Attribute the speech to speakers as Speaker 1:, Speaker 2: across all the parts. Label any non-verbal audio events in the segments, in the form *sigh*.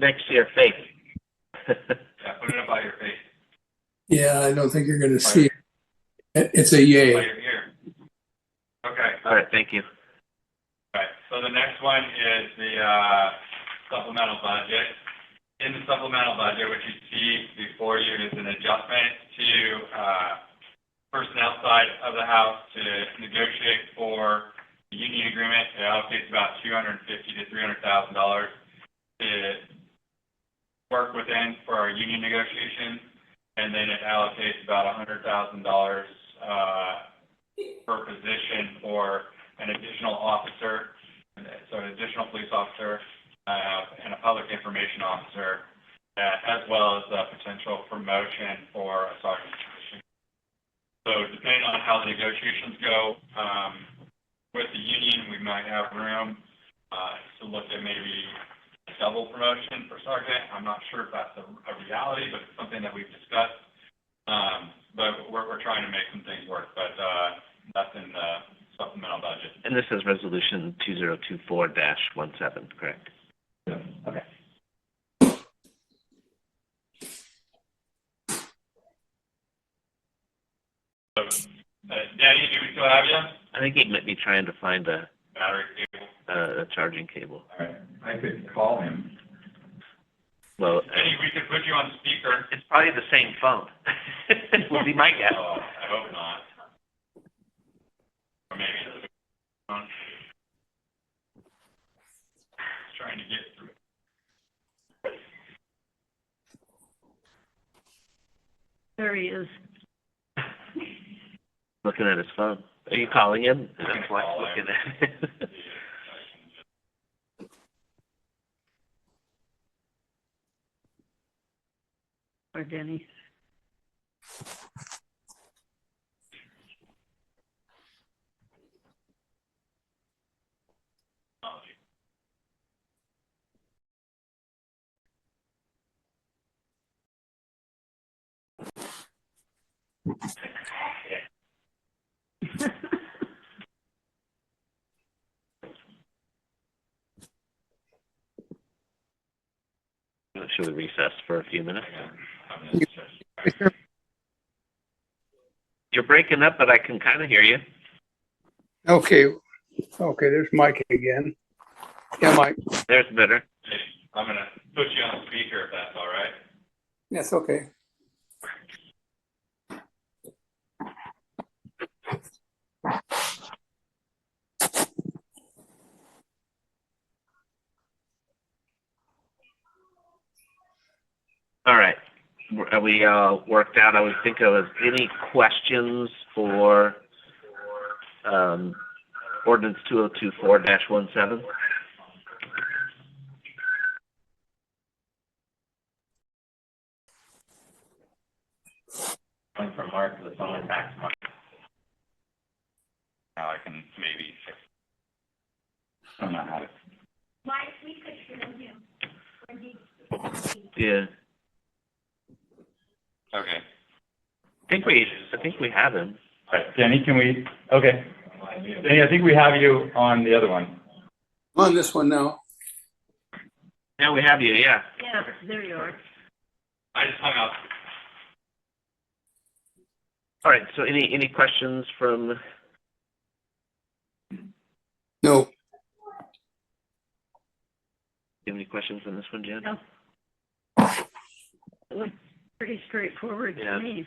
Speaker 1: next year fake.
Speaker 2: Yeah, put it up by your face,
Speaker 3: Yeah, I don't think you're gonna see it. It- It's a
Speaker 2: by
Speaker 3: yay.
Speaker 2: your ear. Okay,
Speaker 1: *laughs* All right, thank you.
Speaker 2: alright, so the next one is the, uh, supplemental budget. In the supplemental budget, what you see before you is an adjustment to, uh, personnel side of the house to negotiate for the union agreement. It allocates about two hundred and fifty to three hundred thousand dollars to work within for our union negotiations. And then it allocates about hundred thousand dollars, uh, per position for an additional officer, so an additional police officer, uh, and a public information officer, uh, as well as a potential promotion for a sergeant position. So depending on how the negotiations go, um, with the union, we might have room, uh, to look at maybe a double promotion for sergeant. I'm not sure if that's a, a reality, but it's something that we've discussed. Um, but we're, we're trying to make some things work, but, uh, that's in the supplemental budget.
Speaker 1: And this is resolution two zero two four dash one seven, correct?
Speaker 2: Okay. So, uh, Danny, do we still have you?
Speaker 1: I think he might be trying to find a,
Speaker 2: Battery cable.
Speaker 1: a charging cable.
Speaker 2: All right, I could call him.
Speaker 1: Well,
Speaker 2: Danny, we could put you on speaker.
Speaker 1: it's probably the same phone. *laughs* Would be my guess.
Speaker 2: Oh, I hope not. Or maybe it's a phone. Trying to get through.
Speaker 4: There he is.
Speaker 1: Looking at his phone. Are you calling *laughs* him?
Speaker 2: I'm gonna
Speaker 1: That's why
Speaker 2: call
Speaker 1: he's
Speaker 2: him.
Speaker 1: looking at it.
Speaker 4: Or Denny.
Speaker 1: *laughs* Should we recess for a few minutes?
Speaker 2: I'm just-
Speaker 1: You're breaking up, but I can kind of hear you.
Speaker 3: Okay, okay, there's Mike again. Yeah, Mike.
Speaker 1: There's better.
Speaker 2: I'm gonna put you on speaker if that's all right.
Speaker 3: That's okay.
Speaker 1: All right. Are we uh, worked out? I would think of any questions for um, ordinance 2024-17?
Speaker 2: One from Mark, the phone back to Mark. Now I can maybe fix. I don't know how to.
Speaker 1: Yeah.
Speaker 2: Okay.
Speaker 1: I think we, I think we have him.
Speaker 2: All right, Danny, can we, okay. Danny, I think we have you on the other one.
Speaker 3: I'm on this one now.
Speaker 1: Yeah, we have you, yeah.
Speaker 4: Yeah, there you are.
Speaker 2: I just hung up.
Speaker 1: All right, so any, any questions from,
Speaker 3: No,
Speaker 1: any questions on this one, Jen?
Speaker 4: No. It looked pretty straightforward
Speaker 1: Yeah.
Speaker 4: to me.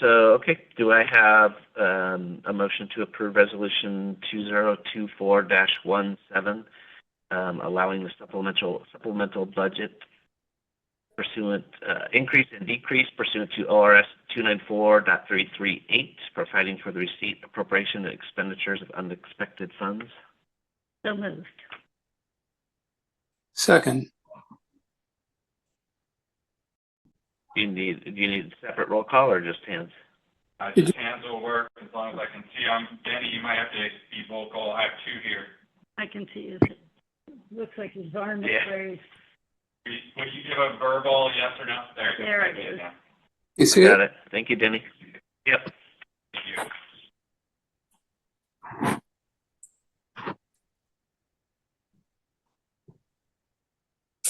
Speaker 1: So, okay, do I have um, a motion to approve Resolution 2024-17, um, allowing the supplemental, supplemental budget pursuant, uh, increase and decrease pursuant to ORS 294.338, providing for the receipt, appropriation, and expenditures of unexpected funds?
Speaker 4: So moved.
Speaker 3: second.
Speaker 1: Do you need, do you need separate roll call or just hands?
Speaker 2: Uh, just hands will work as long as I can see. I'm, Danny, you might have to be vocal. I have two here.
Speaker 4: I can see his, looks like his arm is
Speaker 1: Yeah.
Speaker 4: raised.
Speaker 2: Would you give a verbal yes or no? There. you go.
Speaker 4: There it
Speaker 2: I did
Speaker 4: is.
Speaker 2: now.
Speaker 3: You see
Speaker 1: Got
Speaker 3: it?
Speaker 1: it. Thank you, Denny. Yep.